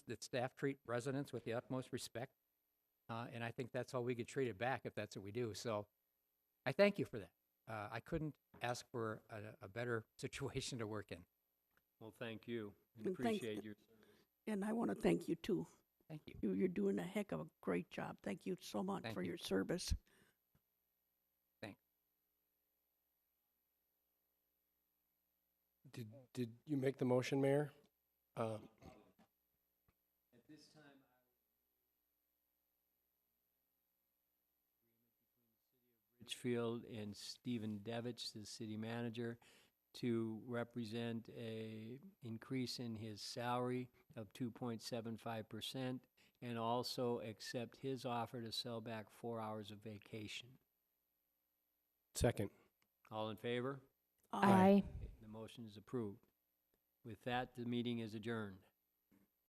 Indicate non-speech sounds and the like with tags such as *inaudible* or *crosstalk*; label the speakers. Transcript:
Speaker 1: that staff treat residents with the utmost respect. Uh, and I think that's how we get treated back if that's what we do. So I thank you for that. Uh, I couldn't ask for a, a better *laughs* situation to work in.
Speaker 2: Well, thank you. We
Speaker 3: And thanks-
Speaker 2: Appreciate your
Speaker 3: And I want to thank you too.
Speaker 1: Thank you.
Speaker 3: You, you're doing a heck of a great job. Thank you so much
Speaker 1: Thank
Speaker 3: for
Speaker 1: you.
Speaker 3: your service.
Speaker 4: Did, did you make the motion, Mayor? Uh,
Speaker 2: Richfield and Stephen Devich, the city manager, to represent a increase in his salary of two point seven five percent and also accept his offer to sell back four hours of vacation.
Speaker 4: Second.
Speaker 2: All in favor?
Speaker 3: Uh,
Speaker 4: Aye.
Speaker 2: The motion is approved. With that, the meeting is adjourned.